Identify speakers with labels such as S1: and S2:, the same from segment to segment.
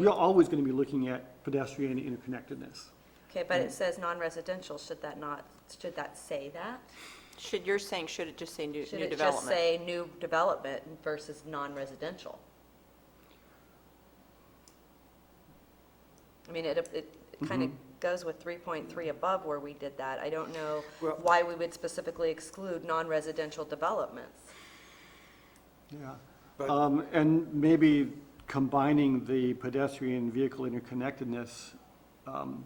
S1: We are always going to be looking at pedestrian interconnectedness.
S2: Okay, but
S1: Mm.
S2: it says non-residential, should that not, should that say that?
S3: Should, you're saying, should it just say new,
S2: Should
S3: new
S2: it just
S3: development?
S2: say new development versus non-residential? I mean, it, it kind
S1: Mm-hmm.
S2: of goes with 3.3 above where we did that. I don't know
S1: Well-
S2: why we would specifically exclude non-residential developments.
S1: Yeah.
S4: But-
S1: Um, And maybe combining the pedestrian vehicle interconnectedness, um,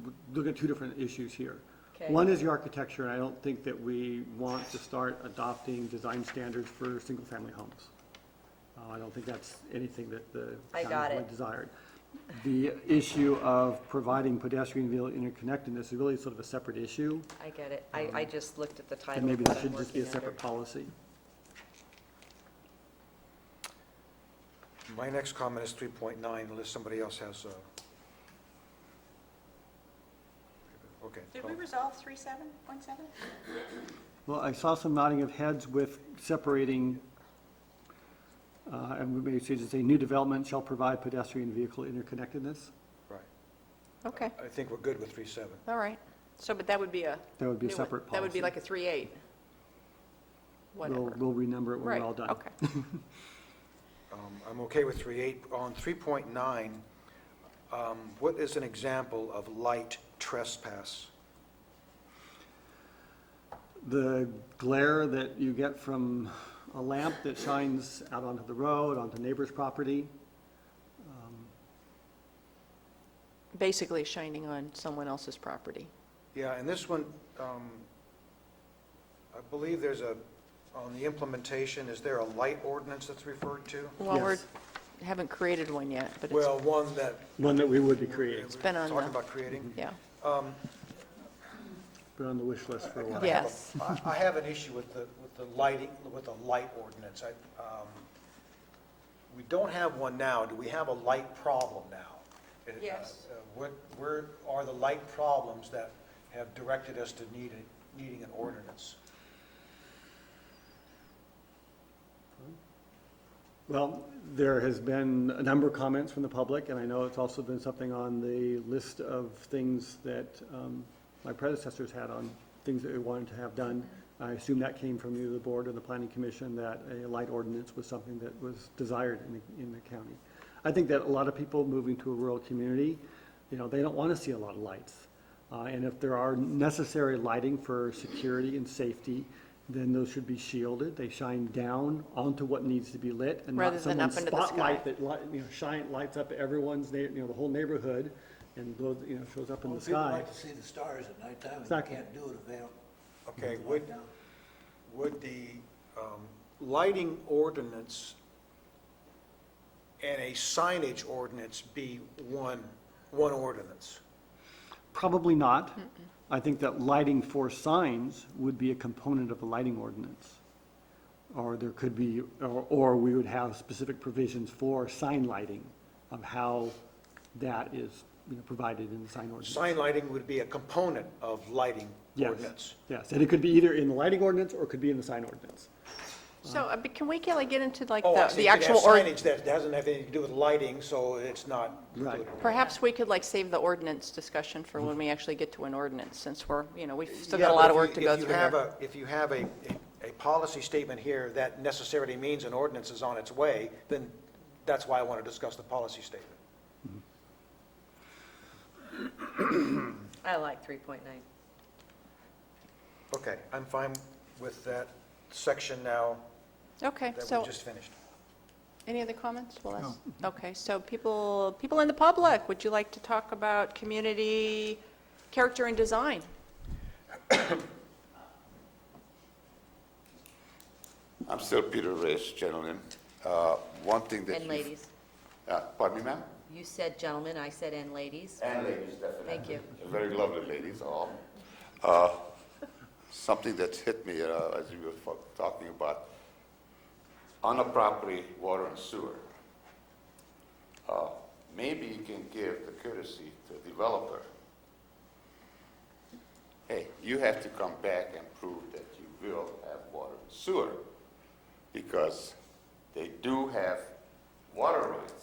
S1: w- look at two different issues here.
S2: Okay.
S1: One is the architecture, and I don't think that we want to start adopting design standards for single-family homes. Uh, I don't think that's anything that the
S2: I
S1: town
S2: got
S1: really
S2: it.
S1: desired. The issue of providing pedestrian vehicle interconnectedness is really sort of a separate issue,
S2: I get it. I, I just looked at the title.
S1: and
S2: of
S1: Mm-hmm. maybe
S2: what
S1: that
S2: I'm
S1: should just be a
S2: working under.
S1: separate policy.
S4: My next comment is 3.9, unless somebody else has uh, a... Okay. oh,
S5: Did
S4: no.
S5: we resolve three seven point seven?
S1: Well, I saw some nodding of heads with separating, uh, and we may say to say, new development shall provide pedestrian vehicle interconnectedness.
S4: Right.
S3: Okay,
S4: I think we're good with 3.7.
S3: all right. So, but that would be a.
S1: That would be a
S3: new one.
S1: separate
S3: That would be
S1: policy.
S3: like a three eight.
S1: We'll,
S3: Whatever.
S1: we'll renumber it when
S3: Right,
S1: we're all done.
S3: okay.
S4: Um, I'm okay with 3.8. On 3.9, um, what is an example of light trespass?
S1: The glare that you get from a lamp that shines out onto the road, onto neighbor's property,
S3: Basically shining on someone else's property.
S4: Yeah, and this one, um, I believe there's a, on the implementation, is there a light ordinance that's referred to?
S3: Well, we're,
S1: Yes.
S3: haven't created one yet, but it's,
S4: Well, one that
S1: one that we would be
S4: we're
S1: creating,
S3: been on
S4: talking
S3: the-
S4: about creating.
S3: yeah.
S4: Um,
S1: been on the wish list for a while.
S4: I have a-
S3: Yes.
S4: I- I have an issue with the, with the lighting, with the light ordinance. I, um, We don't have one now. Do we have a light problem now? It, uh,
S3: Yes.
S4: uh, What, where are the light problems that have directed us to need, a- needing an ordinance?
S1: Well, there has been a number of comments from the public, and I know it's also been something on the list of things that um, my predecessors had on, things that they wanted to have done. I assume that came from either the board or the planning commission, that a light ordinance was something that was desired in, the- in the county. I think that a lot of people moving to a rural community, you know, they don't want to see a lot of lights. Uh, And if there are necessary lighting for security and safety, then those should be shielded. They shine down onto what needs to be lit and
S3: Rather
S1: not
S3: than
S1: someone's
S3: up into the
S1: spotlight
S3: sky.
S1: that, light- you know, shine, lights up everyone's, neigh- you know, the whole neighborhood and blows, you know, shows up in the
S6: Well, People
S1: sky.
S6: like to see the stars at nighttime, and
S1: Exactly.
S6: you can't do it if they don't.
S4: Okay,
S6: put the
S4: would,
S6: light down.
S4: would the um, lighting ordinance and a signage ordinance be one, one ordinance?
S1: Probably not. I think that lighting for signs would be a component of a lighting ordinance. Or there could be, or, or we would have specific provisions for sign lighting of how that is, you know, provided in the sign ordinance.
S4: Sign lighting would be a component of lighting
S1: Yes,
S4: ordinance.
S1: Yes, and it could be either in the lighting ordinance or it could be in the sign ordinance.
S3: So, uh, but can we, Kelly, get into like
S4: Oh, I
S3: the,
S4: see,
S3: the
S4: you could have
S3: actual, or,
S4: signage that doesn't have anything to do with lighting, so it's not
S1: Right.
S4: included.
S3: perhaps we could like save the ordinance discussion for when we actually get to an ordinance, since we're, you know, we've still
S4: Yeah,
S3: got a
S4: but
S3: lot
S4: if
S3: of
S4: you-
S3: work to go
S4: if you
S3: through
S4: have
S3: here.
S4: a- If you have a, a- a policy statement here that necessarily means an ordinance is on its way, then that's why I want to discuss the policy statement.
S2: I like 3.9.
S4: Okay, I'm fine with that section now
S3: Okay,
S4: that
S3: so
S4: we just finished.
S3: Any other comments? Well, that's, okay, so people, people in the public, would you like to talk about community character and design?
S7: I'm still Peter Rich, gentlemen. Uh, One thing that.
S2: And
S7: you-
S2: ladies,
S7: Uh, Pardon me, ma'am?
S2: you said gentlemen, I said and ladies.
S7: And ladies, definitely.
S2: Thank you.
S7: Very lovely ladies, all. Uh, Something that hit me uh, as you were fo- talking about, on a property, water and sewer. Uh, Maybe you can give the courtesy to the developer. Hey, you have to come back and prove that you will have water and sewer, because they do have water rights.